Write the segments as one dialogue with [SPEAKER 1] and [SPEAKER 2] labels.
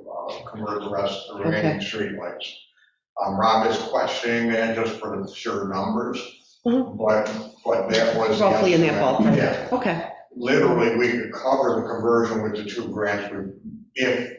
[SPEAKER 1] up, convert uh, the rest, the remaining
[SPEAKER 2] Okay.
[SPEAKER 1] streetlights. Um, Rob is questioning that just for the sure numbers,
[SPEAKER 2] Mhm.
[SPEAKER 1] but, but that was. the
[SPEAKER 2] Roughly in that
[SPEAKER 1] estimate.
[SPEAKER 2] ballpark.
[SPEAKER 1] Yeah,
[SPEAKER 2] Okay,
[SPEAKER 1] literally, we could cover the conversion with the two grants, we- if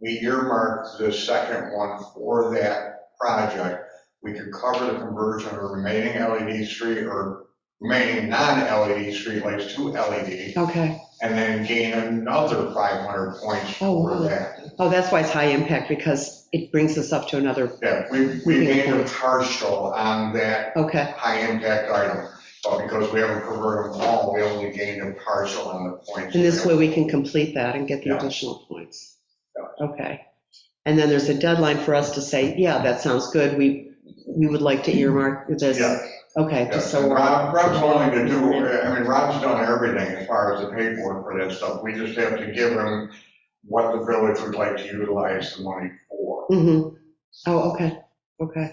[SPEAKER 1] we earmarked the second one for that project, we could cover the conversion of remaining LED street, or remaining E non-LED streetlights to LED,
[SPEAKER 2] okay.
[SPEAKER 1] and then gain another 500 points
[SPEAKER 2] Oh,
[SPEAKER 1] for
[SPEAKER 2] wow.
[SPEAKER 1] that.
[SPEAKER 2] Oh, that's why it's high impact, because it brings us up to another,
[SPEAKER 1] Yeah, we, we made a partial on that
[SPEAKER 2] okay,
[SPEAKER 1] high-impact item, but because we haven't converted them all, we only gained a partial on the points.
[SPEAKER 2] and this way we can complete that and get the
[SPEAKER 1] Yeah.
[SPEAKER 2] additional points. Okay. And then there's a deadline for us to say, yeah, that sounds good, we, we would like to earmark this.
[SPEAKER 1] Yeah.
[SPEAKER 2] Okay, just
[SPEAKER 1] Yes,
[SPEAKER 2] so
[SPEAKER 1] and
[SPEAKER 2] we're,
[SPEAKER 1] Rob, Rob's willing to do, I mean, Rob's done everything as far as the paperwork for that stuff. We just have to give him what the village would like to utilize the money for.
[SPEAKER 2] hmm Oh, okay, okay.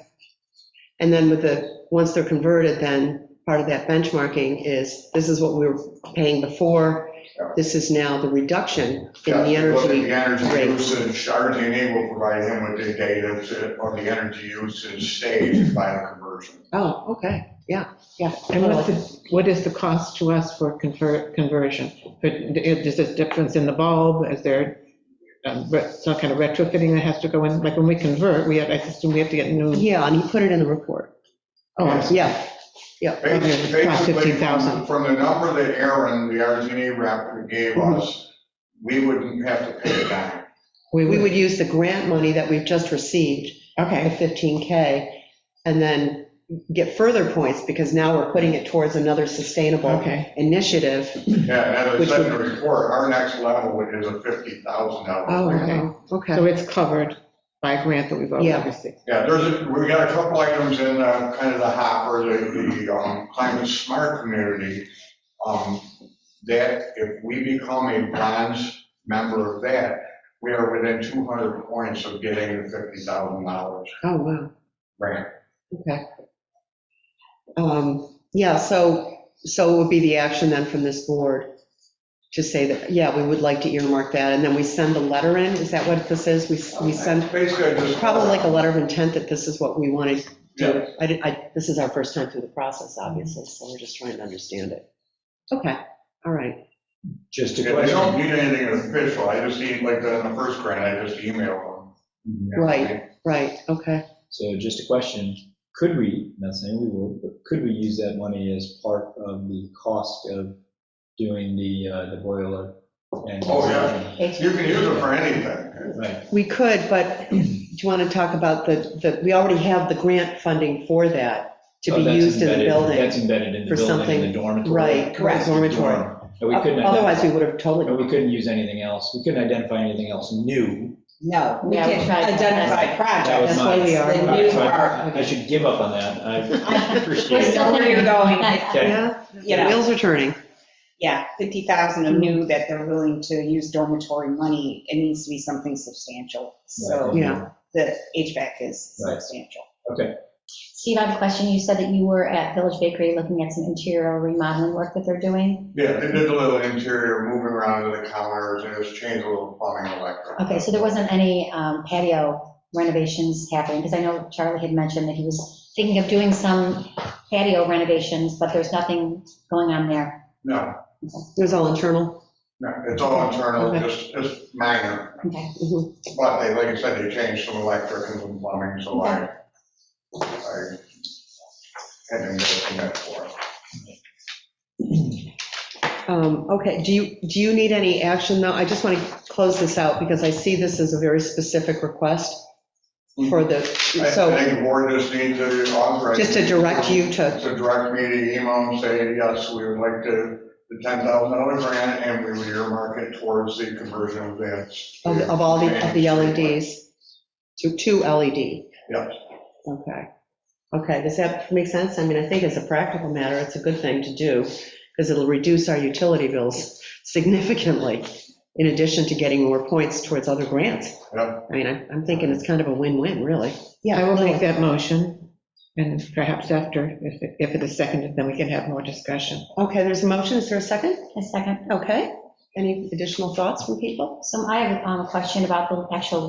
[SPEAKER 2] And then with the, once they're converted, then part of that benchmarking is, this is what we were paying before,
[SPEAKER 1] Yeah.
[SPEAKER 2] this is now the reduction in
[SPEAKER 1] Yeah,
[SPEAKER 2] the
[SPEAKER 1] look at
[SPEAKER 2] energy.
[SPEAKER 1] The energy
[SPEAKER 2] rate.
[SPEAKER 1] usage, RTE will provide him with the data to- on the energy usage staged by the conversion.
[SPEAKER 2] Oh, okay, yeah, yeah.
[SPEAKER 3] And what's the, what is the cost to us for conver- conversion? Could- Is there a difference in the bulb? Is there um, re- some kind of retrofitting that has to go in? Like when we convert, we have, I assume we have to get new.
[SPEAKER 2] Yeah, and he put it in the report.
[SPEAKER 3] Oh, I see.
[SPEAKER 2] Yeah,
[SPEAKER 3] Okay, it's about
[SPEAKER 1] Basically, from
[SPEAKER 3] 15,000.
[SPEAKER 1] from the number that Aaron, the RTE E rep, gave
[SPEAKER 2] Mm-hmm.
[SPEAKER 1] us, we wouldn't have to pay a dime.
[SPEAKER 2] we would use the grant money that we've just received, the
[SPEAKER 3] Okay,
[SPEAKER 2] 15K, and then get further points, because now we're putting it towards another sustainable
[SPEAKER 3] okay.
[SPEAKER 2] initiative.
[SPEAKER 1] Yeah, and as
[SPEAKER 2] Mm-hmm. Which
[SPEAKER 1] I said in the
[SPEAKER 2] would-
[SPEAKER 1] report, our next level is a fifty thousand
[SPEAKER 2] Oh,
[SPEAKER 1] dollar.
[SPEAKER 2] wow, okay.
[SPEAKER 3] So it's covered by a grant that we've
[SPEAKER 2] Yeah.
[SPEAKER 3] already received.
[SPEAKER 1] Yeah, there's, a- we got a couple items in uh, kind of the hopper, the, the um, climate smart community. um, That if we become a bronze member of that, we are within two hundred points of getting the fifty thousand dollars
[SPEAKER 2] Oh, wow,
[SPEAKER 1] grant.
[SPEAKER 2] okay. Um, Yeah, so, so it would be the action then from this board to say that, yeah, we would like to earmark that, and then we send the letter in, is that what this is? We, we send,
[SPEAKER 1] Basically, I just.
[SPEAKER 2] probably like a letter of intent that this is what we wanted
[SPEAKER 1] Yeah.
[SPEAKER 2] do. I, did- I, this is our first time through the process, obviously, so we're just trying to understand it. Okay, all right.
[SPEAKER 4] Just a
[SPEAKER 1] Yeah, I don't
[SPEAKER 4] question,
[SPEAKER 1] need anything official, I just need, like, the the first grant, I just email them.
[SPEAKER 2] Right. Right, okay.
[SPEAKER 4] so just a question, could we, not saying we would, but could we use that money as part of the cost of doing the, uh, the boiler? and-
[SPEAKER 1] Oh, yeah. You can use it for anything.
[SPEAKER 4] Right,
[SPEAKER 2] We could, but do you want to talk about the, the, we already have the grant funding for that to
[SPEAKER 4] Oh,
[SPEAKER 2] be
[SPEAKER 4] that's
[SPEAKER 2] used in the
[SPEAKER 4] embedded- That's
[SPEAKER 2] building.
[SPEAKER 4] embedded in
[SPEAKER 2] for
[SPEAKER 4] the building, in
[SPEAKER 2] something.
[SPEAKER 4] the dormitory.
[SPEAKER 2] Right, correct, dormitory. Uh,
[SPEAKER 4] Dorm. But we couldn't.
[SPEAKER 2] Otherwise, we
[SPEAKER 4] identify-
[SPEAKER 2] would have
[SPEAKER 4] But we
[SPEAKER 2] totally.
[SPEAKER 4] couldn't use anything else, we couldn't identify anything else new.
[SPEAKER 5] No, we
[SPEAKER 6] No,
[SPEAKER 5] didn't
[SPEAKER 6] it's not-
[SPEAKER 5] identify
[SPEAKER 4] That
[SPEAKER 5] projects.
[SPEAKER 4] was
[SPEAKER 2] That's why we
[SPEAKER 5] The
[SPEAKER 2] are.
[SPEAKER 5] new
[SPEAKER 4] Alright, so I
[SPEAKER 5] part.
[SPEAKER 4] I should give up on that, I
[SPEAKER 5] I
[SPEAKER 4] appreciate it.
[SPEAKER 5] still where you're going,
[SPEAKER 6] uh,
[SPEAKER 4] Okay.
[SPEAKER 2] Yeah,
[SPEAKER 5] you know,
[SPEAKER 2] wheels are turning.
[SPEAKER 5] yeah, 50,000 of new that they're willing to use dormitory money, it needs to be something substantial. So
[SPEAKER 2] Yeah.
[SPEAKER 5] the HVAC is
[SPEAKER 4] Right.
[SPEAKER 5] substantial.
[SPEAKER 6] Steve, I have a question. You said that you were at Village Bakery looking at some interior remodeling work that they're doing.
[SPEAKER 1] Yeah, they did a little interior, moving around to the counters, and just changed a little plumbing and electric.
[SPEAKER 6] Okay, so there wasn't any um, patio renovations happening? Because I know Charlie had mentioned that he was thinking of doing some patio renovations, but there's nothing going on there.
[SPEAKER 1] No,
[SPEAKER 2] It was all internal.
[SPEAKER 1] no, it's all internal,
[SPEAKER 2] Okay.
[SPEAKER 1] just, just minor,
[SPEAKER 6] Okay. mm-hmm.
[SPEAKER 2] Mhm.
[SPEAKER 1] but they, like I said, they changed some electric and some plumbing, so I, I had them looking at for. it.
[SPEAKER 2] Um, Okay, do you, do you need any action though? I just want to close this out because I see this as a very specific request for the,
[SPEAKER 1] I
[SPEAKER 2] so.
[SPEAKER 1] I think the board just needs to authorize.
[SPEAKER 2] Just to direct you to,
[SPEAKER 1] To direct me to email and say, yes, we would like to, the ten thousand dollar grant, and we would earmark it towards the conversion of that.
[SPEAKER 2] of of all the, of the E LEDs, to two LED.
[SPEAKER 1] Yeah.
[SPEAKER 2] E Okay. Okay, does that make sense? I mean, I think as a practical matter, it's a good thing to do, because it'll reduce our utility bills significantly, in addition to getting more points towards other grants.
[SPEAKER 1] Yeah.
[SPEAKER 2] I mean, I'm, I'm thinking it's kind of a win-win, really.
[SPEAKER 3] I will make that motion, and perhaps after, if it- if it is seconded, then we can have more discussion.
[SPEAKER 2] Okay, there's a motion, is there a second?
[SPEAKER 6] A second.
[SPEAKER 2] Okay, any additional thoughts from people?
[SPEAKER 6] So I have um, a question about the actual